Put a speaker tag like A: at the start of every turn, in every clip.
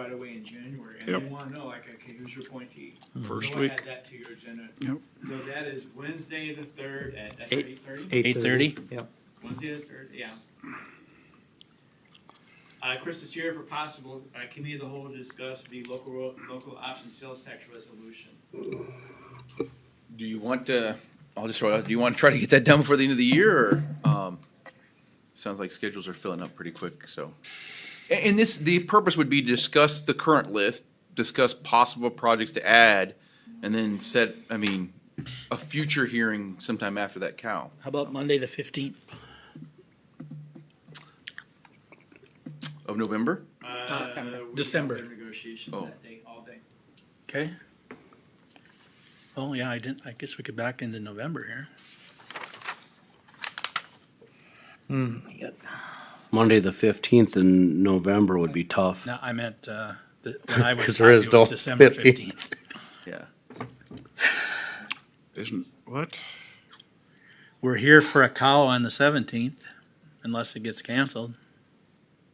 A: right away in January, and
B: Yep.
A: they wanna know, like, okay, who's your appointee?
B: First
A: So
B: week.
A: add that to your agenda.
B: Yep.
A: So that is Wednesday the third at, that's
C: Eight-
A: eight thirty?
C: Eight thirty?
D: Yep.
A: Wednesday the third, yeah. Uh, Chris, it's here for possible, uh, committee of the whole to discuss the local, ro- local option sales tax resolution.
E: Do you want to, I'll just throw it out, do you want to try to get that done before the end of the year or, um, sounds like schedules are filling up pretty quick, so. A- And, this, the purpose would be to discuss the current list, discuss possible projects to add, and then set, I mean, a future hearing sometime after that cow.
C: How about Monday, the fifteenth?
E: Of November?
A: Uh,
C: December.
A: we have
C: December.
A: their Negotiations
E: Oh.
A: that day, all day.
C: Okay. Oh, yeah, I didn't, I guess we could back into November here.
F: Monday, the fifteenth in November would be tough.
C: No, I meant, uh, the, when I was
F: 'Cause there
C: talking,
F: is
C: it was
F: no
C: December
F: 15th.
C: fifteenth.
E: Yeah.
B: Isn't, what?
C: We're here for a cow on the seventeenth, unless it gets canceled.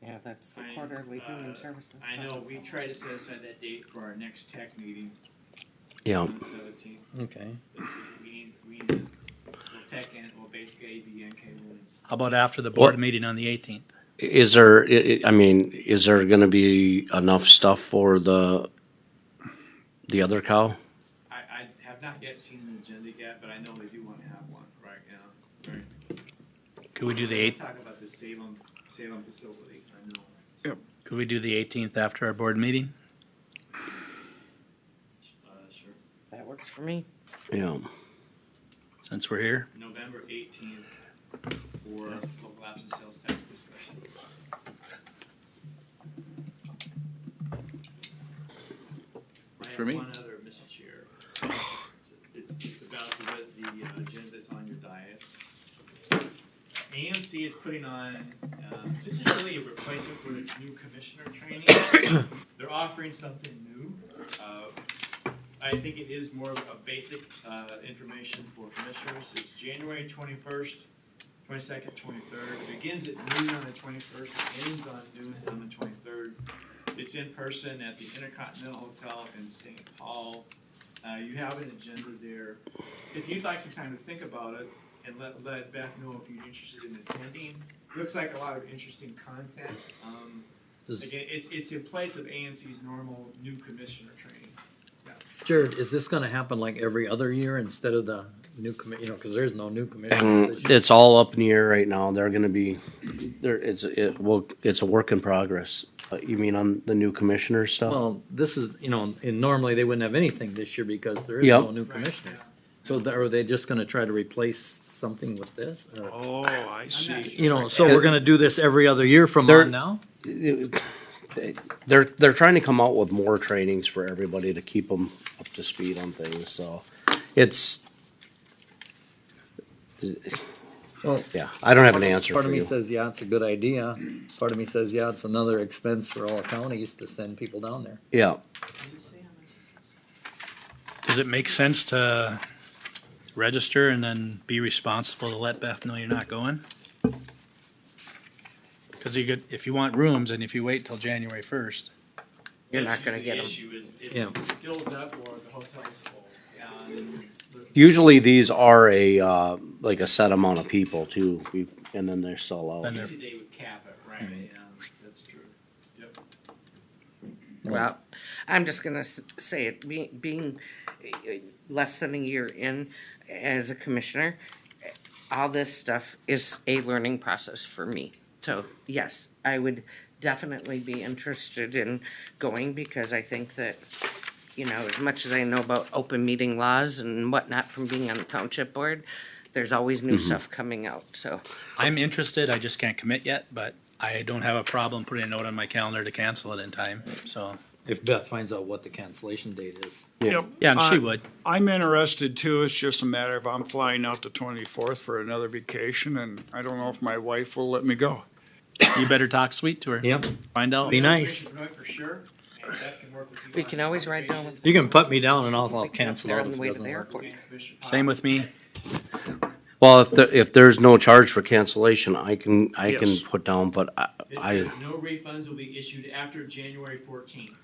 G: Yeah, that's the
A: I,
G: quarterly
A: uh,
G: human services.
A: I
G: budget.
A: know, we try to set aside that date for our next tech meeting
F: Yeah,
A: on the seventeenth.
D: Okay.
A: We need, we need, we'll tech and, we'll basic ABNK will
C: How about after the board
F: What-
C: meeting on the eighteenth?
F: is there, I- I I mean, is there gonna be enough stuff for the, the other cow?
A: I, I have not yet seen an agenda yet, but I know they do want to have one right now. Right.
C: Could we do the eighth,
A: Talk about the Salem, Salem facility, I know.
C: could we do the eighteenth after our board meeting?
A: Uh, sure.
G: That works for me.
F: Yeah,
C: Since we're here,
A: November eighteenth for local option sales tax discussion. I
E: For
A: have
E: me?
A: one other, Mr. Chair. It's, it's about the, the uh, agenda that's on your dais. AMC is putting on, um, this is really a replacement for its new commissioner training. They're offering something new. Uh, I think it is more of a basic uh, information for commissioners. It's January twenty-first, twenty-second, twenty-third. It begins at noon on the twenty-first, it ends on noon on the twenty-third. It's in person at the Intercontinental Hotel in St. Paul. Uh, You have an agenda there. If you'd like some time to think about it and let, let Beth know if you're interested in attending. Looks like a lot of interesting content. Um, Again, it's, it's in place of AMC's normal new commissioner training.
D: Jared, is this gonna happen like every other year instead of the new commi, you know, cause there's no new commission
F: and
D: this year?
F: it's all up in the air right now. They're gonna be, there, it's, it will, it's a work in progress. Uh, You mean on the new commissioner stuff?
D: Well, this is, you know, and normally they wouldn't have anything this year because there is
F: Yep.
D: no new
A: Right,
D: commissioner.
A: yeah.
D: So th- are they just gonna try to replace something with this? or-
B: Oh, I see.
D: You know, so we're gonna do this every other year from
F: There-
D: on now?
F: They're, they're trying to come out with more trainings for everybody to keep them up to speed on things, so it's,
D: Well,
F: yeah, I don't have an answer
D: Part
F: for
D: of me
F: you.
D: says, yeah, it's a good idea. Part of me says, yeah, it's another expense for all counties to send people down there.
F: Yeah.
C: does it make sense to register and then be responsible to let Beth know you're not going? Cause you could, if you want rooms and if you wait till January first,
G: You're
A: That's
G: not gonna
A: usually
G: get 'em.
A: The issue is
D: Yeah.
A: if it fills up or the hotel's full. and
F: Usually these are a, uh, like a set amount of people too, We've and then they sell out.
C: Then they're-
A: Usually they would cap it, right? Yeah, that's true. Yep.
G: Well, I'm just gonna s- say it, be- being eh, less than a year in as a commissioner, eh, all this stuff is a learning process for me. So, yes, I would definitely be interested in going because I think that, you know, as much as I know about open meeting laws and whatnot from being on the township board, there's always new stuff coming out, so.
C: I'm interested, I just can't commit yet, but I don't have a problem putting a note on my calendar to cancel it in time, so.
D: If Beth finds out what the cancellation date is.
B: Yep.
C: Yeah, and she
B: Uh,
C: would.
B: I'm interested too. It's just a matter of I'm flying out the twenty-fourth for another vacation and I don't know if my wife will let me go.
C: You better talk sweet to her.
D: Yep.
C: Find out.
D: Be nice.
A: Right, for sure. And that can work with you
G: We
A: on
G: can always ride down
A: conversations.
D: You can put me down and I'll, I'll
G: Picking up
D: cancel
G: there
D: out
G: on
D: if
G: the
D: it
G: way to
D: doesn't
G: the
D: work.
G: airport.
A: Commissioner Pop.
C: Same with me.
F: Well, if the, if there's no charge for cancellation, I can, I can
B: Yes.
F: put down, but I,
A: It
F: I.
A: says no refunds will be issued after January fourteenth.